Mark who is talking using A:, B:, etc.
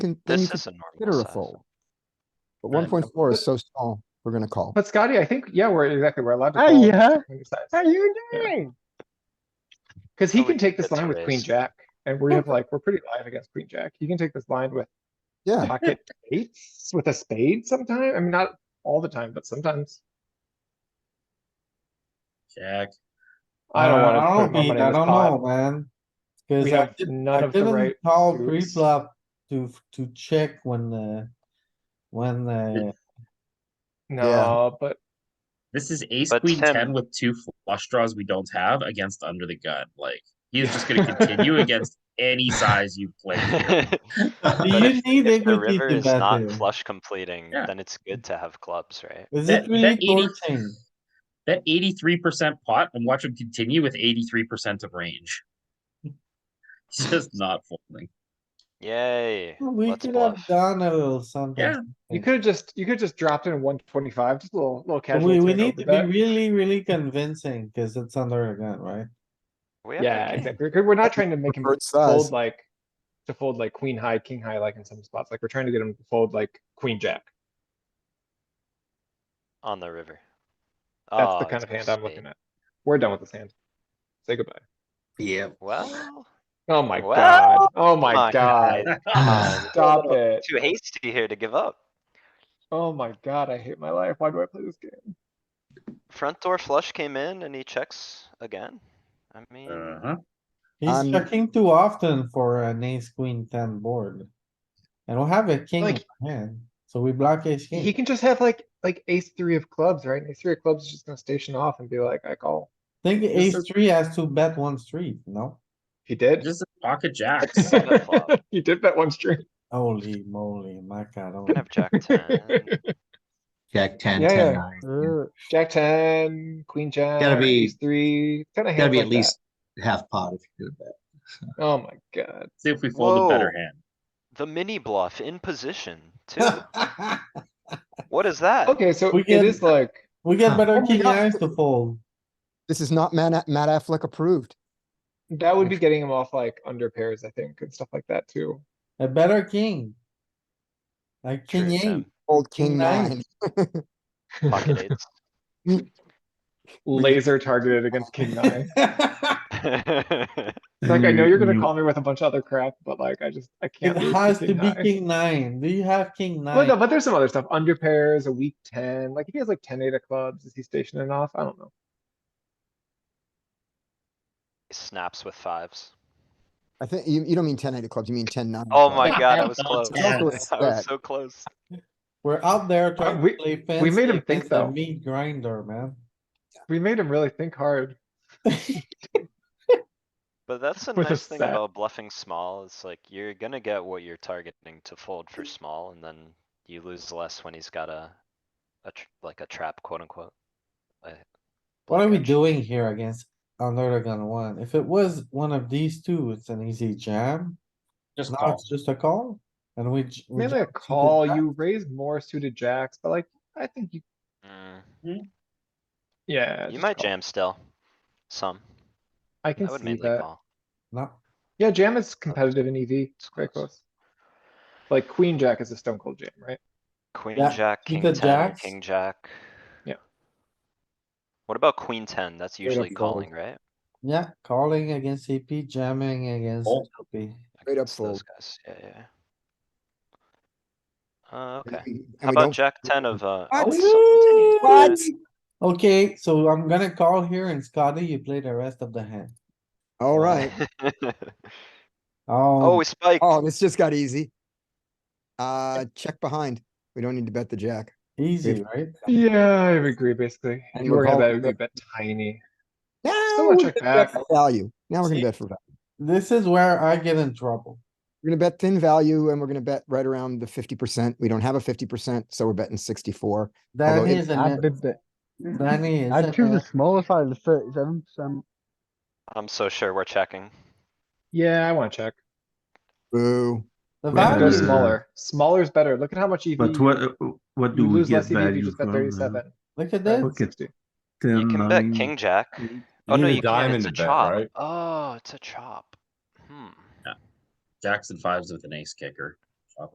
A: can, then you
B: This
A: can
B: is a normal
A: consider a
B: size.
A: fold. But
B: Right.
A: one point four is so small, we're gonna call.
C: But Scotty, I think, yeah, we're exactly, we're allowed to.
D: Hey,
C: call
D: yeah.
C: when he decides.
D: How you
C: Yeah.
D: doing?
C: Cause he
B: Oh, we
C: can take this
B: get to
C: line with queen
B: raise.
C: jack and we have like, we're pretty live against queen jack. He can take this line with
A: Yeah,
C: pocket eights, with a spade sometime. I mean, not all the time, but sometimes.
E: Check.
C: I don't
F: Uh,
C: wanna
F: I
C: put
F: don't
C: my
F: need,
C: money in
F: I
C: the
F: don't know,
C: pot.
F: man.
C: We
F: Cause I
C: have
F: did,
C: none
F: I
C: of the right.
F: didn't call
C: suits.
F: pre-flop to, to check when, uh, when, uh,
C: No, but
E: This is ace
B: But
E: queen
B: Tim-
E: ten with two flush draws we don't have against under the gun. Like he is just going to continue against any size you play. here.
B: But
F: you
B: if-
F: need
B: if the
F: equity
B: river
F: to
B: is
F: bet
B: not
F: here?
B: flush completing,
E: Yeah.
B: then it's good to have clubs, right?
F: is
E: That-
F: it really
E: that 80
F: torching?
E: That eighty three percent pot and watch him continue with eighty three percent of range. He's just not folding.
B: Yay,
A: Hmm.
F: We
B: let's
F: could have
B: bluff.
F: done a little something.
E: Yeah.
C: you could have just, you could just dropped in one twenty-five, just a little, little
F: But
C: casual.
F: We, we
C: thing
F: need
C: over
F: to be
C: that.
F: really, really convincing, cause it's under a gun, right?
B: We have
C: Yeah,
B: a king.
C: exactly. We're we're not trying to make him
A: Convert
C: fold
A: size.
C: like, to fold like queen high, king high, like in some spots. Like, we're trying to get him to fold like queen jack.
B: on the river.
C: That's the
B: Oh,
C: kind
B: it's
C: of
B: a
C: hand I'm looking
B: spade.
C: at. We're done with this hand. Say goodbye.
E: Yeah.
B: Well,
C: Oh my
B: Well,
C: god. Oh my
B: my
C: god.
E: Uh-huh.
C: Stop it.
B: too hasty here to give up.
C: Oh my god, I hate my life. Why do I play this game?
B: Front door flush came in and he checks again. I mean,
E: Uh huh.
F: He's
A: I'm-
F: checking too often for an ace queen ten board. And we'll have a king in
C: Like-
F: hand, so we block ace
C: He
F: king.
C: can just have like, like ace three of clubs, right? And Ace three of clubs is just gonna station off and be like, oh, I call.
F: Think
E: This
F: ace
E: is-
F: three has to bet one street, no?
C: He did.
E: Just pocket jacks.
B: bet flop.
C: He did bet one string.
F: Holy moly, my god. oh.
B: gonna have jack ten.
G: Jack ten,
C: Yeah,
G: ten
C: yeah.
G: nine.
C: Jack ten, queen jack.
G: be-
C: ace Three, kind of.
G: Gotta be at least half pot if you do that.
C: Oh my god.
E: See if we fold a better
B: Whoa.
E: hand.
B: The mini bluff in position too. What is that?
C: Okay, so
F: We
C: it
F: can-
C: is like,
F: We get better
C: my
F: king
C: God.
F: eyes to fold.
A: this is not Matt, Matt Affleck approved.
C: that would be getting him off like under pairs, I think, and stuff like that too.
F: A better king. Like
B: True,
F: king eight.
B: Tim.
A: Old king
F: King nine.
A: nine.
B: Pocket eights.
C: Laser targeted against king nine.
B: It's
C: It's like, I know you're gonna
E: Mm.
C: call me with a bunch of other crap, but like, I just, I
F: It
C: can't. lose
F: has to
C: king
F: be
C: nine.
F: king nine. Do you have king
C: Well, no,
F: nine?
C: but there's some other stuff, under pairs, a weak ten, like if he has like ten eight of clubs, is he stationing off? I don't know.
B: Snaps with fives.
A: I think, you, you don't mean ten eight of clubs, you mean ten nine. of
B: Oh
A: clubs.
B: my god, I
E: Yeah,
B: was
E: that's
B: close.
E: bad.
B: I was so close.
F: We're out there trying to
C: Uh, we-
F: play
C: we
F: fancy
C: made him think,
F: against a
C: though.
F: Meat grinder, man.
C: We made him really think hard.
B: But that's the
C: With a
B: nice thing
C: set.
B: about bluffing small, it's like you're gonna get what you're targeting to fold for small and then you lose less when he's got a. A tr- like a trap quote unquote. A-
C: Oh
F: What are we
B: blockage.
F: doing here against under the gun one? If it was one of these two, it's an easy jam.
E: Just
F: Now
E: call.
F: it's just a call and we. j- we
C: Maybe
F: jam
C: a
F: suited
C: call,
F: jack.
C: you raise more suited jacks, but like, I think you,
B: Mm,
C: yeah.
B: You
C: just
B: might
C: call.
B: jam still. Some.
C: I
B: I
C: can
B: would
C: see
B: mainly
C: that.
B: call.
F: No,
C: Yeah, jam is competitive in EV, it's very
B: close.
C: close. Like queen jack is a stone cold jam, right?
B: Queen,
F: Yeah,
B: jack, king
F: the
B: ten, or
F: jacks.
B: king jack.
C: Yeah.
B: What about queen ten? That's
C: up
B: usually
C: fold.
B: calling, right?
F: yeah, calling against CP, jamming against
E: Fold.
F: LP.
A: Straight up
B: Against those guys, yeah, yeah. yeah. Uh,
A: And
B: okay.
A: we-
B: How
A: and we don't-
B: about jack ten of, uh?
F: What?
B: oh, it's still continuing.
F: What? Okay, so I'm gonna call here and Scotty, you play the rest of the hand.
A: All right.
B: Oh,
F: Oh,
B: we spiked.
A: Oh, this just got easy. Uh, check behind. We don't need to bet the jack.
F: easy, right?
C: Yeah, I would agree, basically. If
A: And
C: you were gonna bet, it
A: revolve-
C: would be a bit tiny.
A: Now
C: Still
A: we're
C: a
A: gonna
C: check
A: bet
C: back.
A: for value. Now we're gonna
F: See?
A: bet for value.
F: This is where I get in trouble.
A: We're gonna bet thin value and we're gonna bet right around the fifty percent. We don't have a fifty percent, so we're betting sixty-four.
F: Danny
A: it-
F: is
D: I
F: an,
D: did that.
F: Danny is
D: I choose the
F: an,
D: smaller side of the thirty-seven percent.
B: I'm so sure we're checking.
C: Yeah, I wanna check.
A: Boo.
F: the
C: Let's go
F: value,
D: Value.
C: smaller. Smaller is better. Look at how much EV.
H: But
C: you-
H: what, uh, what
C: You
H: do we
C: lose
H: get
C: less EV if you
H: value
C: just bet
H: from? uh,
C: thirty-seven.
F: look at
C: right?
F: this.
H: Look at
C: 60.
B: You can bet king jack. Oh, no,
I: need a
B: you can't.
I: diamond
B: It's a
I: to bet,
B: chop.
I: right?
B: Oh, it's a chop. Hmm.
E: Jacks and fives with an ace kicker.